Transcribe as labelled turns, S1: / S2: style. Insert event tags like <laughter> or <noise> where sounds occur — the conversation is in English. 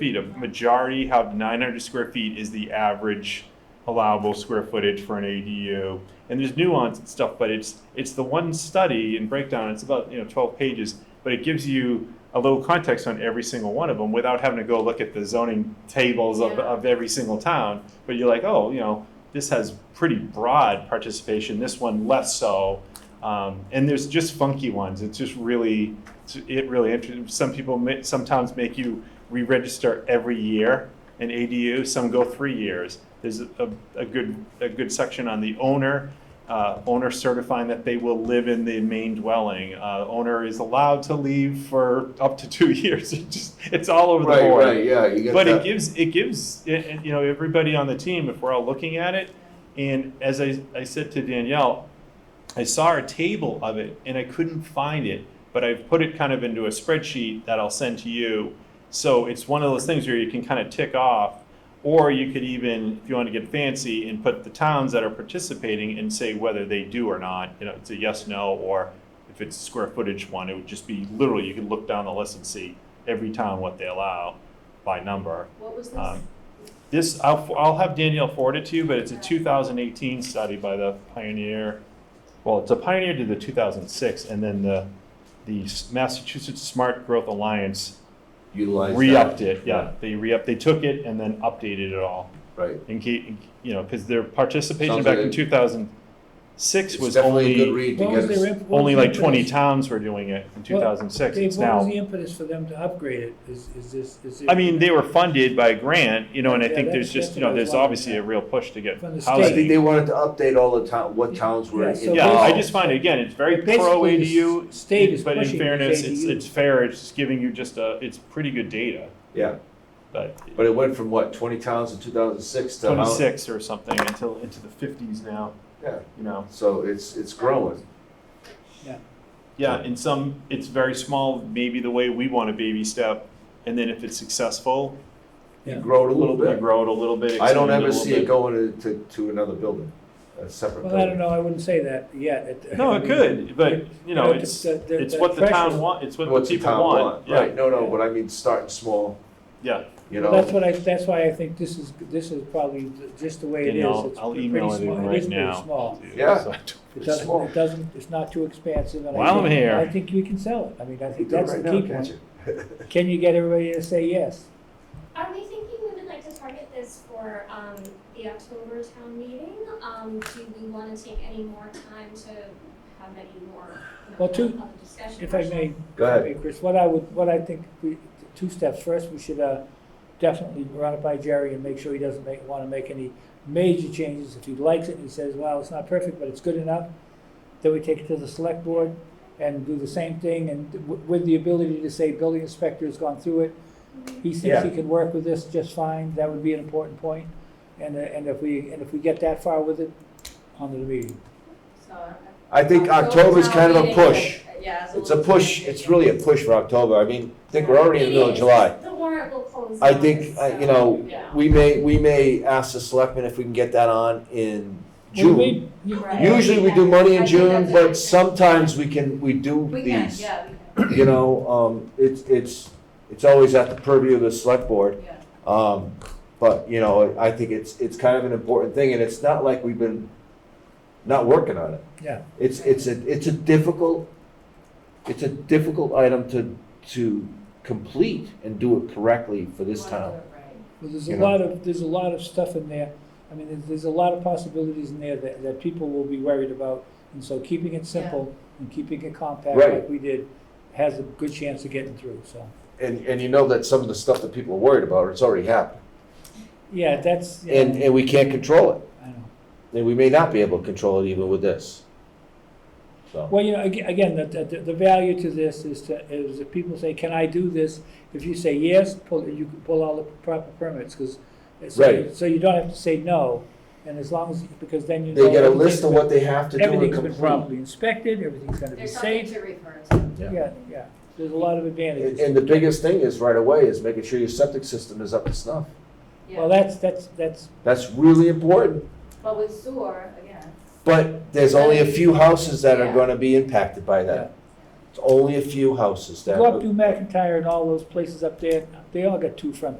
S1: feet. A majority have 900 square feet is the average allowable square footage for an ADU. And there's nuance and stuff, but it's, it's the one study and breakdown, it's about, you know, 12 pages, but it gives you a little context on every single one of them without having to go look at the zoning tables of,
S2: Yeah.
S1: of every single town. But you're like, oh, you know, this has pretty broad participation, this one less so. Um, and there's just funky ones. It's just really, it's- it really interesting. Some people ma- sometimes make you re-register every year an ADU. Some go three years. There's a, a, a good a good section on the owner. Uh, owner certifying that they will live in the main dwelling. Uh, owner is allowed to leave for up to two <laughs> years. It just, it's all over the
S3: Right,
S1: board
S3: right, yeah, you get
S1: but it
S3: that.
S1: gives it gives it, it- you know everybody on the team if we're all looking at it and as I, I said to danielle i saw a table of it and i couldn't find it but i've put it kind of into a spreadsheet that i'll send to you so it's one of those things where you can kind of tick off or you could even if you want to get fancy and put the towns that are participating and say whether they do or not you know it's a yes no or if it's square footage one it would just be literally you could look down the list and see every town what they allow by number.
S2: What was this?
S1: Um, This, I'll, I'll have Danielle forward it to you, but it's a 2018 study by the Pioneer, well, it's a Pioneer did the 2006, and then the, the Massachusetts Smart Growth Alliance
S3: Utilize that.
S1: re-upped it, yeah, they re-upped, they took it and then updated it all.
S3: Right.
S1: And keep, you know, because their participation
S3: Sounds
S1: back
S3: like
S1: in
S3: it-
S1: 2006
S3: It's
S1: was
S3: definitely a good
S1: only,
S3: read to
S4: What was
S3: get,
S4: their
S3: us-
S4: imp- what was
S1: only
S4: the
S1: like 20
S4: impetus-
S1: towns were doing it in 2006,
S4: Dave,
S1: it's now.
S4: What was the impetus for them to upgrade it? Is, is this, is it?
S1: I mean, they were funded by a grant, you know, and I
S4: Yeah,
S1: think there's
S4: that's-
S1: just,
S4: that's
S1: you know,
S4: what I was
S1: there's
S4: wondering,
S1: obviously a
S4: yeah.
S1: real push to get
S4: From the
S3: I think
S1: housing.
S3: they wanted to update all the town, what towns were
S4: Yeah, so
S3: involved.
S1: Yeah, I
S4: basically-
S1: just find, again, it's very
S4: But basically,
S1: pro
S4: the s-
S1: ADU,
S4: State is
S1: but in
S4: pushing these
S1: fairness, it's,
S4: ADUs.
S1: it's fair, it's just giving you just a, it's pretty good data,
S3: Yeah,
S1: but
S3: but it went from what, twenty towns in two thousand six to how?
S1: twenty-six or something until, into the fifties now,
S3: Yeah,
S1: you know?
S3: so it's, it's growing.
S1: Yeah, in some, it's very small, maybe the way we want a baby step, and then if it's successful,
S3: You
S4: Yeah.
S3: grow it a little
S1: you
S3: bit.
S1: grow it a little bit.
S3: I don't
S1: expand
S3: ever
S1: a little
S3: see it
S1: bit.
S3: going to, to, to another building, a separate
S4: Well, I
S3: building.
S4: don't know, I wouldn't say that yet. It-
S1: No,
S4: I
S1: it
S4: mean,
S1: could, but, you know,
S4: but
S1: it's,
S4: the- the-
S1: it's what the town
S4: pressure-
S1: want, it's what the
S3: What's the
S1: people
S3: town
S1: want,
S3: want,
S1: yeah,
S3: right, no, no, but I mean, starting small,
S1: yeah.
S3: you
S4: Well, That's
S3: know,
S4: what I, that's why I think this is, this is probably th- just the way it is.
S1: Danielle,
S4: It's
S1: I'll
S4: pretty
S1: email it
S4: small.
S1: in
S4: It
S1: right
S4: is pretty
S1: now.
S4: small.
S3: Yeah.
S1: So-
S4: It
S3: It's
S4: doesn't,
S3: small.
S4: it doesn't, it's not too expansive. and I
S1: While I'm
S4: think-
S1: here-
S4: I think you can sell it. I mean, I
S3: you
S4: think
S3: do it
S4: that's the
S3: right
S4: key
S3: now, can't
S4: point.
S3: you? <laughs>
S4: Can you get everybody to say yes?
S2: Are we thinking we would like to target this for, um, the October town meeting? Um, do we wanna take any more time to have any more, you know,
S4: Well, two-
S2: other discussion?
S4: If I
S2: sessions?
S4: may,
S3: Go ahead.
S4: Hey, Chris, what I would, what I think, we, two steps. First, we should uh, definitely run it by Jerry and make sure he doesn't make, want to make any major changes. If he likes it and he says, well, it's not perfect, but it's good enough, then we take it to the select board and do the same thing and w- with the ability to say building inspector has gone through it. He thinks
S3: Yeah.
S4: he can work with this just fine. That would be an important point. And, uh, and if we, and if we get that far with it, on to the meeting.
S5: So, uh,
S3: I think October's kind of a push.
S5: Yeah. it's
S3: It's a
S5: little
S3: push,
S5: bit-
S3: it's really a push for October, I mean, I think we're already in the middle of July.
S2: The warrant will close.
S3: I
S2: down,
S3: think, uh,
S2: so-
S3: you know,
S5: Yeah.
S3: we may, we may ask the selectmen if we can get that on in
S4: We
S3: June.
S4: may- you-
S5: Right.
S3: Usually we do money in
S5: I think that's
S3: June,
S5: a good thing.
S3: but sometimes we can, we do
S5: We can,
S3: these.
S5: yeah,
S3: You know, um, it's, it's, it's always at the purview of the select
S5: we
S3: board.
S5: can, yeah.
S3: Um, but, you know, I think it's, it's kind of an important thing and it's not like we've been not working on it.
S4: Yeah.
S3: It's, it's a, it's a difficult, it's a difficult item to, to complete and do it correctly for this
S5: Wanna
S3: town.
S5: do it right.
S4: Well, there's a
S3: you know?
S4: lot of, there's a lot of stuff in there, I mean, there's, there's a lot of possibilities in there that, that people will be worried about, and so keeping it simple and keeping it compact
S3: Right.
S4: like we did has a good chance of getting through, so.
S3: And, and you know that some of the stuff that people are worried about, it's already happened.
S4: Yeah, that's, yeah,
S3: And, and we can't control it.
S4: I know.
S3: And we may not be able to control it even with this. So,
S4: Well, you know, aga- again, the, the, the value to this is to, is if people say, can I do this? If you say yes, pull, you can pull all the proper permits, because, so,
S3: Right.
S4: so you don't have to say no, and as long as, because then you know.
S3: they get a
S4: everything's
S3: list of
S4: been-
S3: what they have to do and
S4: Everything's been
S3: complete.
S4: properly inspected, everything's gonna be
S5: There's something
S4: safe.
S5: to refer to.
S4: Yeah, yeah, there's a lot of
S3: And,
S4: advantages.
S3: and the biggest thing is right away is making sure your septic system is up to snuff.
S5: Yeah.
S4: Well, that's, that's, that's,
S3: That's really important.
S5: But with sewer, again,
S3: But there's only a few houses that are
S5: Yeah.
S3: gonna be impacted by
S4: yeah.
S3: that. It's only a few houses that.
S4: Go up to McIntyre and all those places up there, they all got two front